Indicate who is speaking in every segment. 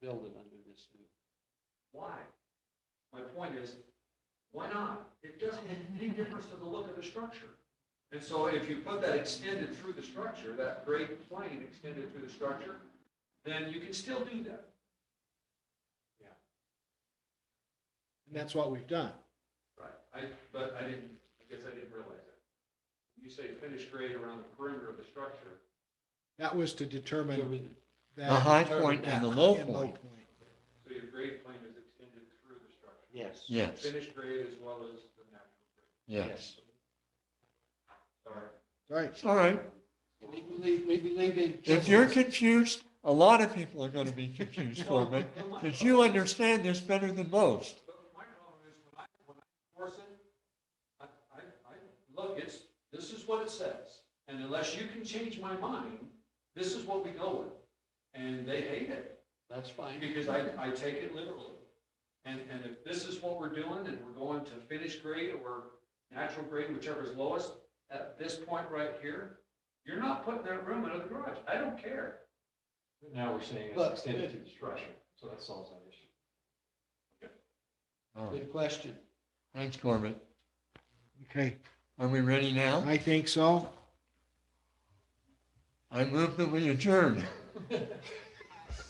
Speaker 1: build it under this new.
Speaker 2: Why? My point is, why not? It doesn't make any difference to the look of the structure. And so if you put that extended through the structure, that great plane extended through the structure, then you can still do that.
Speaker 3: And that's what we've done.
Speaker 2: Right. I, but I didn't, I guess I didn't realize that. You say finished grade around the perimeter of the structure.
Speaker 3: That was to determine that.
Speaker 4: The high point
Speaker 3: that
Speaker 4: and the
Speaker 3: high
Speaker 4: low
Speaker 3: and
Speaker 4: point.
Speaker 2: So your grade plane is extended through the structure.
Speaker 1: Yes.
Speaker 4: Yes,
Speaker 2: Finished grade as well as the natural grade.
Speaker 4: yes.
Speaker 2: Sorry.
Speaker 3: Right,
Speaker 4: It's all right.
Speaker 1: We believe, we believe in.
Speaker 4: If you're confused, a lot of people are going to be confused, Corbin, because you understand this better than most.
Speaker 2: But my problem is when I, when I force it, I, I, I, look, it's, this is what it says. And unless you can change my mind, this is what we go with. And they hate it
Speaker 1: That's fine.
Speaker 2: because I, I take it literally. And, and if this is what we're doing and we're going to finished grade or natural grade, whichever is lowest, at this point right here, you're not putting that room in the garage. I don't care.
Speaker 5: Now we're saying it's
Speaker 1: But-
Speaker 5: extended to the structure, so that solves that issue.
Speaker 4: All right.
Speaker 1: Good question.
Speaker 4: Oh, Thanks, Corbin.
Speaker 3: okay,
Speaker 4: Are we ready now?
Speaker 3: I think so.
Speaker 4: I move that we adjourn.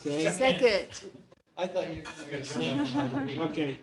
Speaker 3: Okay.
Speaker 6: Second.
Speaker 1: I thought you were going to say.
Speaker 3: Okay.